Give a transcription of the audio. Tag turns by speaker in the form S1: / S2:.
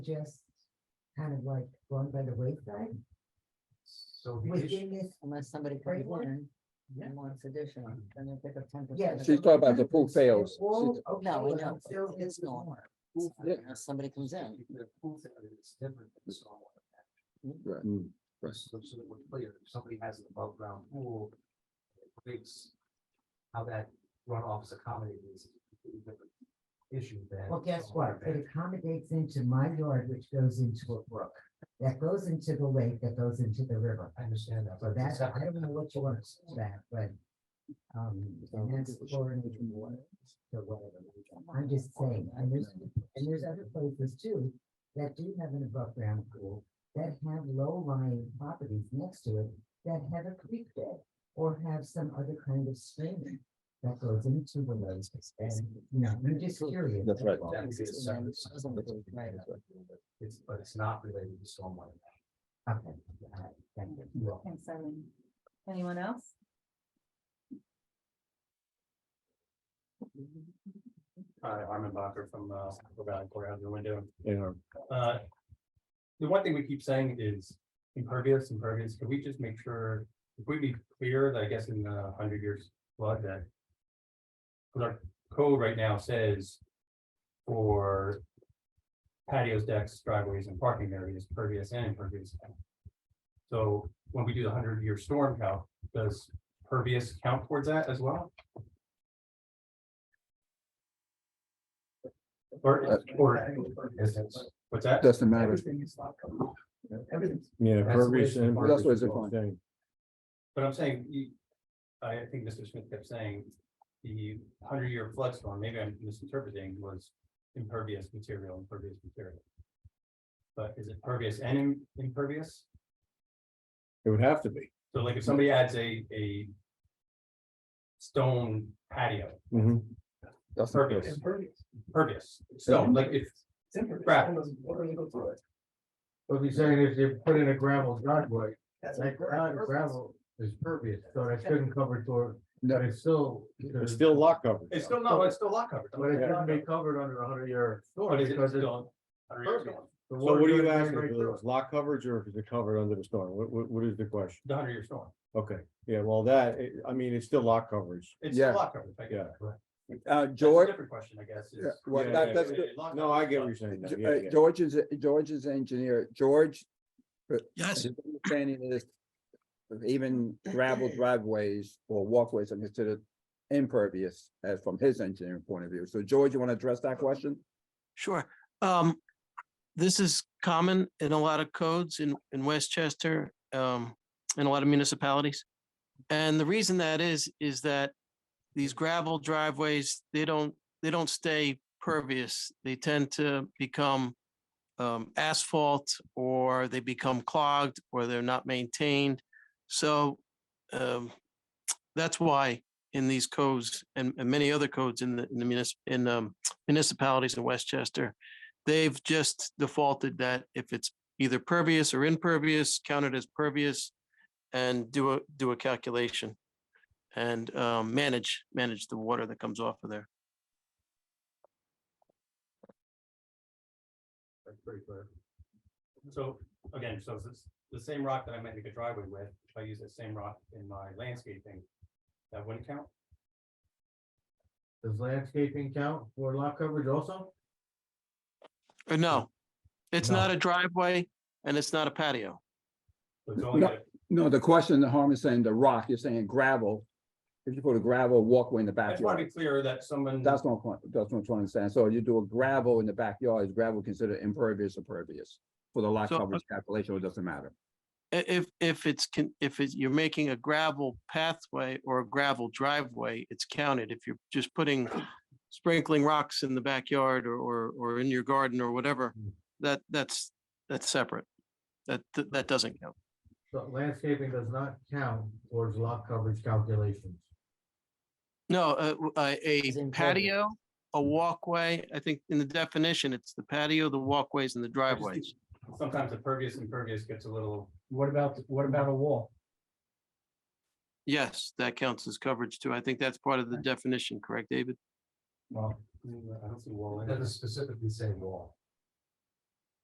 S1: just kind of like going by the wayside
S2: So the issue,
S1: within this,
S3: Unless somebody comes
S1: Framework?
S3: in
S2: Yeah.
S3: and wants additional, then they pick up ten
S1: yeah.
S3: percent.
S1: so
S4: She's talking about Uh, the pool
S1: it's
S4: fails.
S1: all
S4: She's-
S1: okay,
S3: No, I
S1: but
S3: know,
S1: it still
S3: but it's
S1: isn't
S3: normal.
S1: warm.
S2: pool
S3: Yeah,
S2: failure,
S3: Unless somebody comes in.
S2: the pool failure is different than stormwater.
S1: Mm-hmm.
S4: Right. Right.
S2: So so that we're clear, if somebody has an above ground pool, it creates how that runoff is accommodated is a completely different issue than.
S1: Well, guess what?
S2: stormwater
S1: It
S2: management.
S1: accommodates into my yard, which goes into a brook, that goes into the lake, that goes into the river.
S2: I understand that,
S1: So
S2: but
S1: that's,
S2: that's,
S1: I don't know what you want to call that, but. Um, and that's chlorinated water, or whatever. I'm just saying, and there's, and there's other places too that do have an above ground pool that have low lying properties next to it that have a creek bed or have some other kind of stream that goes into the lake. And, you know, I'm just curious.
S4: That's right.
S1: all.
S2: that would be a separate.
S3: Right.
S2: It's, but it's not related to stormwater.
S1: Okay, all right, thank you.
S2: management. Well,
S5: Thanks, Eileen. Anyone else?
S6: Hi, Armin Bacher from uh, Apple Valley Courthouse in Window.
S4: Yeah.
S6: Uh, The one thing we keep saying is impervious, impervious. Can we just make sure, if we be clear, that I guess in the hundred years flood that. 'cause our code right now says for patios, decks, driveways and parking areas, pervious and impervious. So when we do the hundred year storm count, does pervious count towards that as well? Or, or, what's that?
S4: Doesn't matter.
S7: Yeah,
S2: That's the way
S7: pervious
S2: it's
S7: and.
S2: defined.
S4: That's what
S7: impervious
S4: it's
S7: is the same.
S6: But I'm saying, you, I think Mr. Smith kept saying, the hundred year flood storm, maybe I'm misinterpreting, was impervious material, impervious material. But is it pervious and im- impervious?
S7: It would have to be.
S6: So like if somebody adds a, a stone patio,
S7: Mm-hmm.
S4: That's the
S6: pervious, pervious, stone, like if, crap,
S8: What he's saying is they put in a gravel driveway, that gra- gravel is pervious, so that shouldn't cover door, but
S4: No,
S8: it's still.
S7: It's still lot coverage.
S6: it's still, no, it's still lot coverage.
S8: But it shouldn't be covered under a hundred year storm.
S6: But is it
S8: because it-
S6: still? 100-year storm?
S8: the
S7: So
S8: water
S7: what are you
S8: goes right
S7: asking?
S8: through
S7: whether
S8: it.
S7: it's Lot coverage or if it's covered under the storm? What, what, what is the question?
S6: The hundred year storm,
S7: Okay, yeah, well, that, I mean, it's still lot coverage.
S6: it's still
S4: Yeah.
S6: lot coverage, I guess.
S7: Yeah.
S6: Correct.
S4: uh,
S6: That's a
S4: George,
S6: Different question, I guess. is-
S4: Yeah, well,
S7: Yeah,
S4: that-
S7: yeah,
S4: that's
S7: yeah,
S4: good.
S6: yeah, long-
S7: No, I get what you're saying. now.
S4: Ge-
S7: Yeah,
S4: uh,
S7: yeah.
S4: George is, George is engineer, George. but
S9: Yes,
S4: his Understanding is even gravel driveways or walkways are considered impervious as from his engineering point of view. So George, you want to address that question?
S9: sure. Um, this is common in a lot of codes in, in Westchester, um, in a lot of municipalities. And the reason that is, is that these gravel driveways, they don't, they don't stay pervious. They tend to become um, asphalt or they become clogged or they're not maintained. So, um, that's why in these codes and, and many other codes in the, in the municipal, in, um, municipalities in Westchester. They've just defaulted that if it's either pervious or impervious, count it as pervious and do a, do a calculation and um, manage, manage the water that comes off of there.
S6: That's pretty clear. So, again, so it's the same rock that I might make a driveway with, if I use that same rock in my landscaping, that wouldn't count?
S8: Does landscaping count for lot coverage also?
S9: Or no, it's not a driveway and it's not a patio.
S6: So it's only
S4: No.
S6: a-
S4: No, the question that Harm is saying, the rock, you're saying gravel. If you put a gravel walkway in the
S6: I just want to
S4: backyard,
S6: be clear that someone,
S4: that's not, quite- that's what I'm trying to understand. So you do a gravel in the backyard, is gravel considered impervious or pervious? For the lot
S9: So,
S4: coverage calculation, it doesn't matter.
S9: I- If, if it's, con- if it's- you're making a gravel pathway or a gravel driveway, it's counted. If you're just putting, sprinkling rocks in the backyard or, or, or in your garden or whatever, that, that's, that's separate. That, that that doesn't count.
S8: So landscaping does not count towards lot coverage calculations.
S9: No, uh, w- uh,
S3: It's
S9: a
S3: impervious.
S9: patio, a walkway, I think in the definition, it's the patio, the walkways and the driveways.
S6: sometimes the pervious and pervious gets a little,
S2: What about, what about a wall?
S9: Yes, that counts as coverage too. I think that's part of the definition, correct, David?
S6: well, I don't see wall
S2: It
S6: in it.
S2: doesn't specifically say wall.